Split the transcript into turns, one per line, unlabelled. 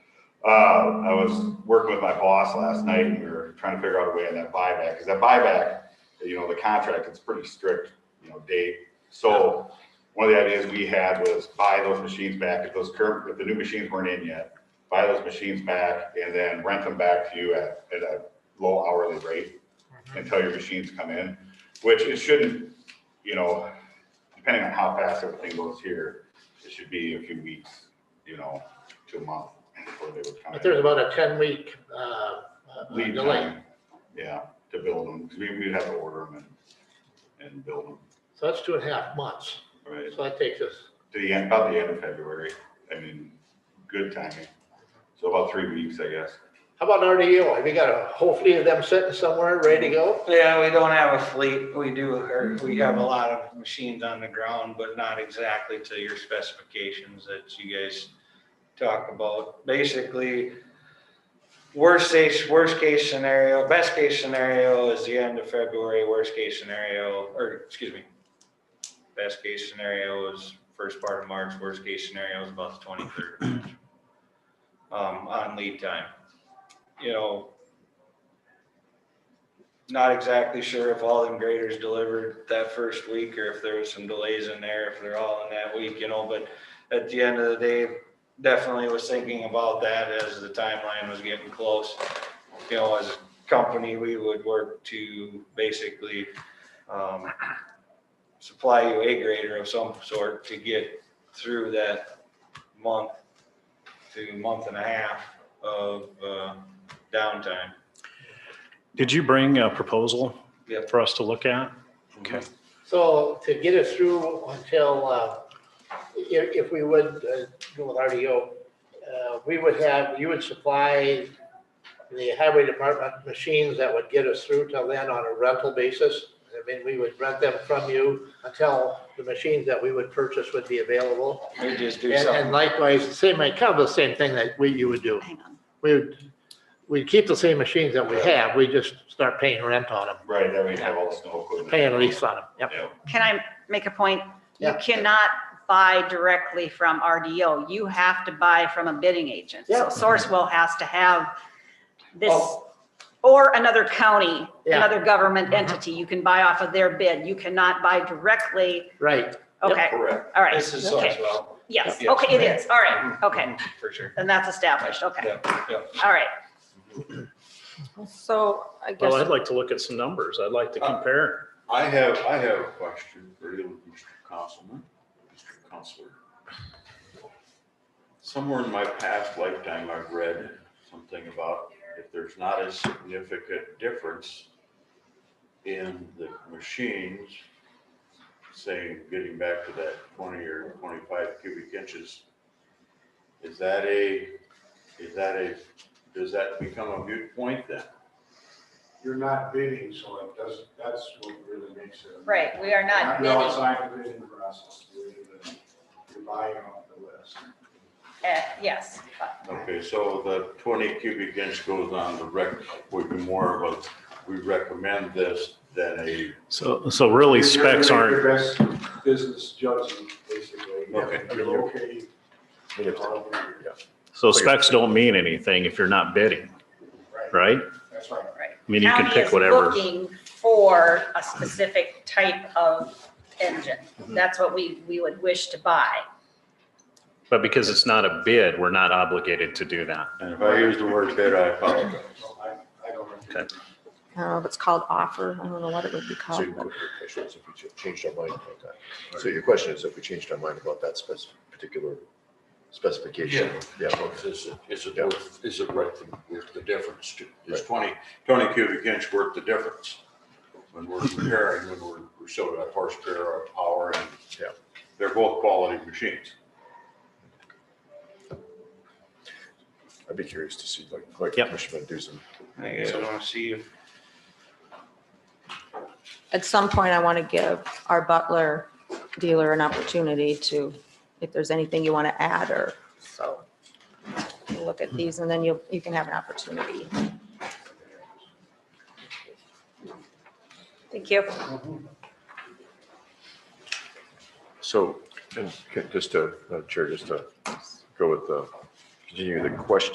Uh, I was working with my boss last night and we were trying to figure out a way on that buyback, because that buyback, you know, the contract, it's pretty strict, you know, date. So one of the ideas we had was buy those machines back, if those current, if the new machines weren't in yet, buy those machines back and then rent them back to you at, at a low hourly rate until your machines come in, which it shouldn't, you know, depending on how fast everything goes here, it should be a few weeks, you know, to a month before they would come in
But there's about a ten week, uh, uh,
lead
delay,
time, yeah, to build them, because we, we'd have to order them and, and build them,
so that's two and a half months,
right?
so that takes us,
To the end, about the end of February, I mean, good timing, so about three weeks, I guess.
how about RDO, have you got a whole fleet of them sitting somewhere, ready to go?
Yeah, we don't have a fleet. We do, or we have a lot of machines on the ground, but not exactly to your specifications that you guys talk about. Basically, worst case, worst case scenario, best case scenario is the end of February, worst case scenario, or excuse me. Best case scenario is first part of March, worst case scenario is about the twenty-third of March. Um, on lead time. You know, not exactly sure if all them graders delivered that first week or if there was some delays in there, if they're all in that week, you know, but at the end of the day, definitely was thinking about that as the timeline was getting close. You know, as a company, we would work to basically, um, supply you a grader of some sort to get through that month to month and a half of, uh, downtime.
Did you bring a proposal
Yep.
for us to look at? Okay.
So to get us through until, uh, if, if we would uh, go with RDO, uh, we would have, you would supply the highway department machines that would get us through till then on a rental basis. I mean, we would rent them from you until the machines that we would purchase would be available.
We just
And
do something.
and likewise, same, kind of the same thing that we, you would do.
Hang on.
We would, we'd keep the same machines that we have, we just start paying rent on them,
Right, then we'd have all the snow equipment.
paying lease on them, yep.
Yeah,
Can I make a point? You
Yeah.
cannot buy directly from RDO. You have to buy from a bidding agent.
Yeah.
So Sourcewell has to have this,
Oh.
or another county,
Yeah.
another government
Mhm.
entity. You can buy off of their bid. You cannot buy directly.
Right, Yep.
Okay,
Correct,
all right.
This is
Okay.
Sourcewell,
Yes,
Yes.
okay, it is. All right,
Mm-hmm.
okay.
for sure.
And that's established, okay.
Yeah, yeah.
All right.
So I
Well, I'd
guess,
like to look at some numbers. I'd like to
Uh,
compare.
I have, I have a question for you, Mr. Councilman, Mr. Counselor. Somewhere in my past lifetime, I've read something about if there's not a significant difference in the machines, saying, getting back to that twenty or twenty-five cubic inches, is that a, is that a, does that become a moot point then?
You're not bidding, so it doesn't, that's what really makes it.
Right, we are not
No,
bidding.
it's not a bidding process, you're, you're buying off the list.
Uh, Yes.
Okay, so the twenty cubic inch goes on the rec, would be more of a, we recommend this than a,
So, so really
You're-
specs
you're
aren't,
doing Your best business judging, basically.
Okay.
You're okay. all of them.
so specs don't mean anything if you're not bidding,
Right,
right?
that's right.
I mean, you can
County
pick
is
whatever.
Looking for a specific type of engine.
Mm-hmm.
That's what we, we would wish to buy.
But because it's not a bid, we're not obligated to do that.
and if I use the word bid, I apologize.
So I, I don't.
Okay.
I don't know if it's called offer. I don't know what it would be
So
called.
your question is if we ch- changed our mind about that. So your question is if we changed our mind about that spec, particular specification? Yeah, well,
Is it, is it
Yeah.
worth, is it worth, the- worth the difference? to- Is twenty, twenty cubic inch worth the difference? When we're comparing, when we're, we're showing that horsepower, or power, and
Yeah.
they're both quality machines.
I'd be curious to see, like, like
Yep.
Commissioner Dusan.
I guess I wanna see if
At some point, I want to give our Butler dealer an opportunity to, if there's anything you want to add or so. we'll Look at these and then you, you can have an opportunity.
Thank you.
So, and ca- just to, uh, Chair, just to go with the, continue the question